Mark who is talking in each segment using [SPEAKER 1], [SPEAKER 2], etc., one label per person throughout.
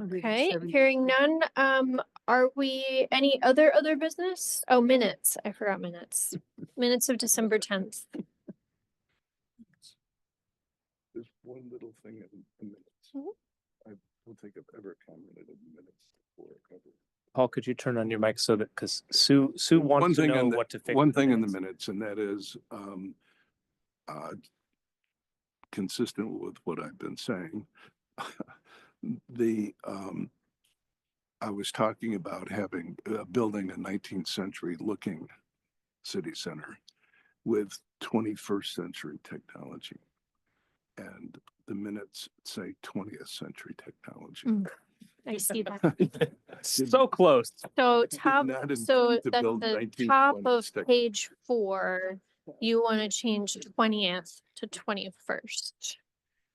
[SPEAKER 1] Okay, hearing none. Um, are we, any other, other business? Oh, minutes. I forgot minutes. Minutes of December tenth.
[SPEAKER 2] There's one little thing in the
[SPEAKER 1] Mhm.
[SPEAKER 2] minutes. I don't think I've ever commented in the minutes before. ever.
[SPEAKER 3] Paul, could you turn on your mic so that, because Sue, Sue
[SPEAKER 2] One
[SPEAKER 3] wants to
[SPEAKER 2] thing
[SPEAKER 3] know
[SPEAKER 2] in the-
[SPEAKER 3] what to fix.
[SPEAKER 2] One thing in the minutes, and that is, um, uh, consistent with what I've been saying. The, um, I was talking about having, uh, building a nineteenth century looking city center with twenty-first century technology. And the minutes say twentieth century technology.
[SPEAKER 1] Mm. I see that.
[SPEAKER 3] So close.
[SPEAKER 1] So
[SPEAKER 2] did
[SPEAKER 1] top,
[SPEAKER 2] not intend
[SPEAKER 1] so
[SPEAKER 2] to
[SPEAKER 1] that's
[SPEAKER 2] build
[SPEAKER 1] the
[SPEAKER 2] 1920s
[SPEAKER 1] top of
[SPEAKER 2] tech-
[SPEAKER 1] page four. You want to change twentieth to twenty-first.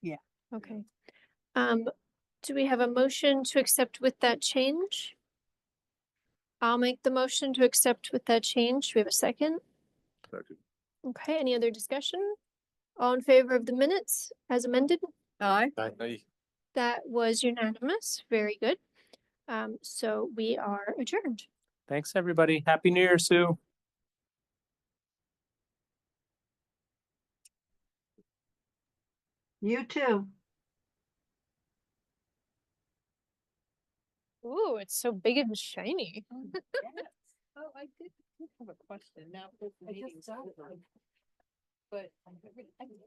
[SPEAKER 4] Yeah.
[SPEAKER 1] Okay. Um, do we have a motion to accept with that change? I'll make the motion to accept with that change. Do we have a second?
[SPEAKER 2] Second.
[SPEAKER 1] Okay, any other discussion? All in favor of the minutes as amended?
[SPEAKER 4] Aye.
[SPEAKER 1] That was unanimous. Very good. Um, so we are adjourned.
[SPEAKER 3] Thanks, everybody. Happy New Year, Sue.
[SPEAKER 4] You too.
[SPEAKER 1] Ooh, it's so big and shiny.
[SPEAKER 5] Oh, I did did have a question now. that the meeting's over. But I haven't- I